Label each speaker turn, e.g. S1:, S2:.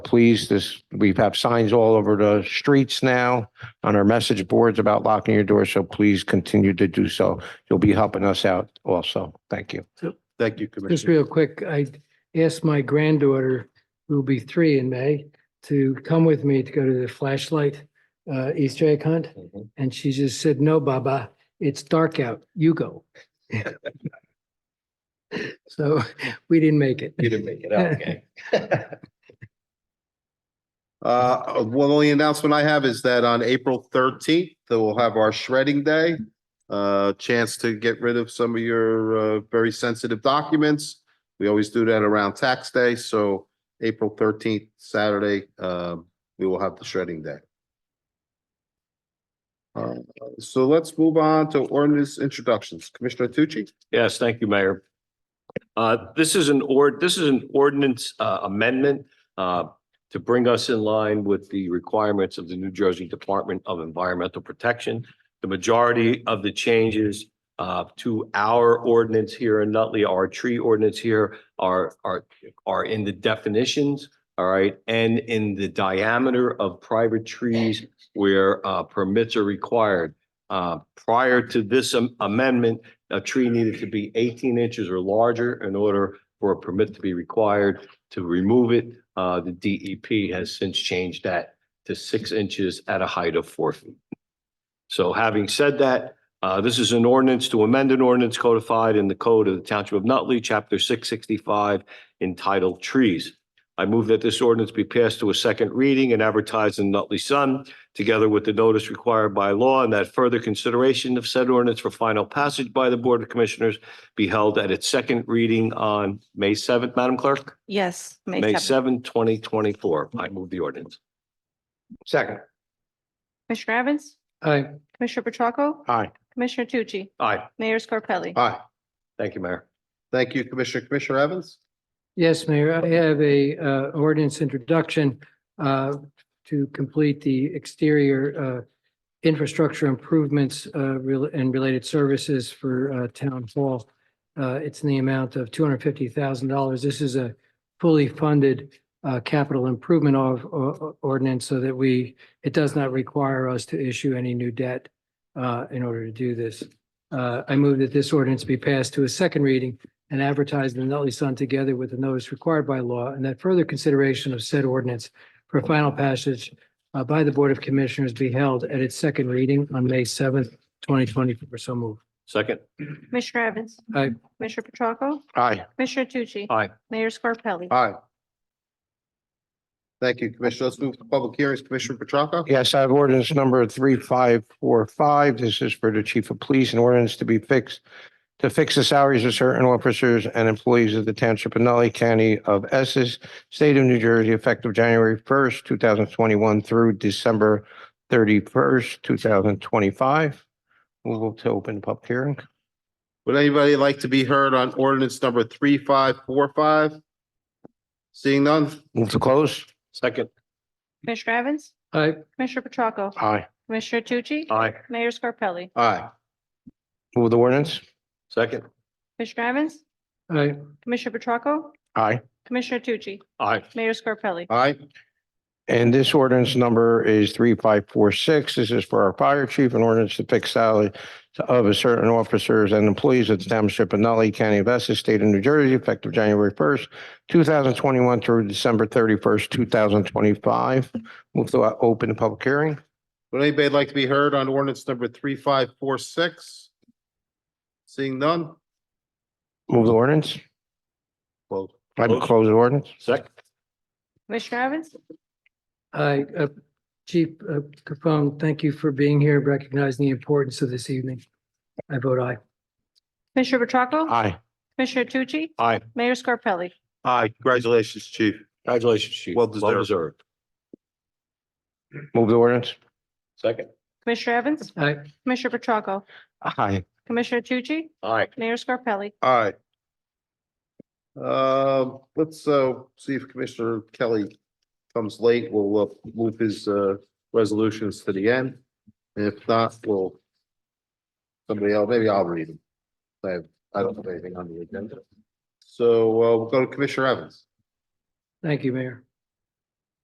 S1: please, this, we have signs all over the streets now on our message boards about locking your door, so please continue to do so. You'll be helping us out also. Thank you.
S2: Thank you,
S3: Just
S2: Commissioner.
S3: real quick, I asked my granddaughter, who'll be three in May, to come with me to go to the flashlight uh, Easter egg hunt.
S1: Mm-hmm.
S3: And she just said, no, Baba, it's dark out. You go. So we didn't make it.
S4: You didn't make it out, okay.
S2: Uh, one only announcement I have is that on April thirteenth, we'll have our shredding day. Uh, chance to get rid of some of your uh very sensitive documents. We always do that around tax day, so April thirteenth, Saturday, um, we will have the shredding day. Uh, so let's move on to ordinance introductions. Commissioner Tucci?
S4: Yes, thank you, Mayor. Uh, This is an ord, this is an ordinance uh, amendment uh, to bring us in line with the requirements of the New Jersey Department of Environmental Protection. The majority of the changes uh, to our ordinance here in Nutley, our tree ordinance here are, are, are in the definitions, all right, and in the diameter of private trees where uh, permits are required. Uh, Prior to this am- amendment, a tree needed to be eighteen inches or larger in order for a permit to be required to remove it. Uh, the DEP has since changed that to six inches at a height of four feet. So having said that, uh, this is an ordinance to amend an ordinance codified in the code of the Township of Nutley, chapter six sixty-five entitled Trees. I move that this ordinance be passed to a second reading and advertised in Nutley Sun together with the notice required by law, and that further consideration of said ordinance for final passage by the Board of Commissioners be held at its second reading on May seventh, Madam Clerk?
S5: Yes.
S4: May
S5: 7th.
S4: seventh, twenty twenty-four. I move the ordinance.
S1: Second,
S5: Commissioner Evans?
S3: Hi,
S5: Commissioner Petracca?
S1: Aye.
S5: Commissioner Tucci?
S4: Aye.
S5: Mayor Scarpelli?
S2: Aye.
S4: Thank you, Mayor.
S2: Thank you, Commissioner. Commissioner Evans?
S3: yes, Mayor, I have a uh, ordinance introduction uh, to complete the exterior uh, infrastructure improvements uh, rel- and related services for uh, Town Hall. Uh, It's in the amount of two hundred fifty thousand dollars. This is a fully funded uh, capital improvement of o- ordinance so that we, it does not require us to issue any new debt uh, in order to do this. Uh, I move that this ordinance be passed to a second reading and advertised in the Nutley Sun together with the notice required by law, and that further consideration of said ordinance for final passage uh, by the Board of Commissioners be held at its second reading on May seventh, twenty twenty-four. So move.
S4: Second,
S5: Commissioner Evans?
S3: Aye.
S5: Commissioner Petracca?
S1: aye,
S5: Commissioner Tucci?
S4: Aye.
S5: Mayor Scarpelli?
S2: Aye. Thank you, Commissioner. Let's move to public hearings. Commissioner Petracca?
S1: yes, I have ordinance number three, five, four, five. This is for the chief of police and ordinance to be fixed to fix the salaries of certain officers and employees of the township of Nutley County of Essex, state of New Jersey, effective January first, two thousand twenty-one through December thirty-first, two thousand twenty-five. Move to open the public hearing.
S2: Would anybody like to be heard on ordinance number three, five, four, five? Seeing none?
S1: Move to close.
S4: second,
S5: Commissioner Evans?
S3: Aye.
S5: Commissioner Petracca?
S1: Aye.
S5: Commissioner Tucci?
S4: aye,
S5: Mayor Scarpelli?
S2: Aye.
S1: Move the ordinance.
S4: second,
S5: Commissioner Evans?
S3: Aye.
S5: Commissioner Petracca?
S1: Aye.
S5: Commissioner Tucci?
S4: aye,
S5: Mayor Scarpelli?
S2: Aye.
S1: And this ordinance number is three five four six. This is for our fire chief an ordinance to fix salary of a certain officers and employees of the township of Nutley County of Essex, state of New Jersey, effective January first, two thousand twenty-one through December thirty-first, two thousand twenty-five. Move to uh, open the public hearing.
S2: Would anybody like to be heard on ordinance number three, five, four, six? Seeing none?
S1: Move the ordinance.
S2: Well,
S1: I would close the ordinance.
S4: second,
S5: Commissioner Evans?
S3: Aye. Uh, Chief uh, Capone, thank you for being here, recognizing the importance of this evening. I vote aye.
S5: Commissioner Petracca?
S1: Aye.
S5: Commissioner Tucci?
S4: aye.
S5: Mayor Scarpelli?
S2: aye. Congratulations, Chief.
S4: Congratulations, Chief.
S2: Well deserved.
S1: Move the ordinance.
S4: Second,
S5: Commissioner Evans?
S3: Aye.
S5: Commissioner Petracca?
S1: Aye.
S5: Commissioner Tucci?
S4: aye.
S5: Mayor Scarpelli?
S2: Aye. Um, let's, uh, see if Commissioner Kelly comes late. We'll uh, move his, uh, resolutions to the end. And If not, we'll somebody else, maybe I'll read them. I, I don't have anything on the agenda. So, uh, we'll go to Commissioner Evans.
S3: Thank you, Mayor.